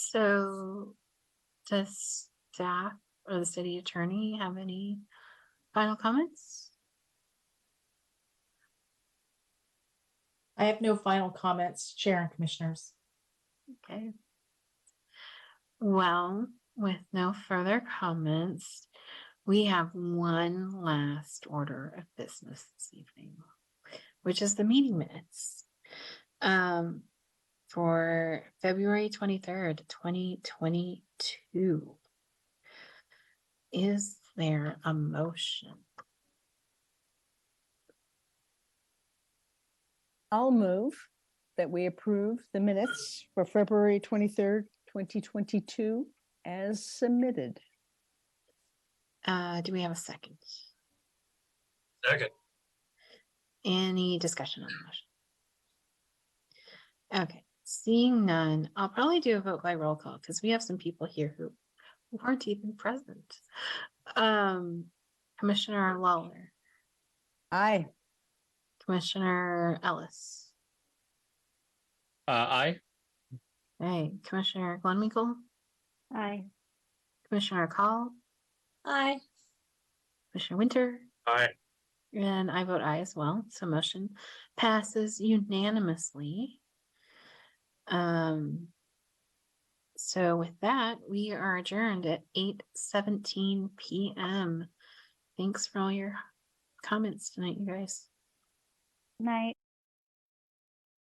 So does staff or the city attorney have any final comments? I have no final comments, Chair and Commissioners. Okay. Well, with no further comments, we have one last order of business this evening, which is the meeting minutes. Um, for February twenty-third, twenty twenty-two. Is there a motion? I'll move that we approve the minutes for February twenty-third, twenty twenty-two as submitted. Uh, do we have a second? Second. Any discussion on the motion? Okay, seeing none, I'll probably do a vote by roll call because we have some people here who who aren't even present. Um, Commissioner Lawler, Aye. Commissioner Ellis, Uh, aye. hey, Commissioner Glenmichael, Aye. Commissioner Call, Aye. Commissioner Winter, Aye. and I vote aye as well. So motion passes unanimously. Um, so with that, we are adjourned at eight seventeen PM. Thanks for all your comments tonight, you guys. Night.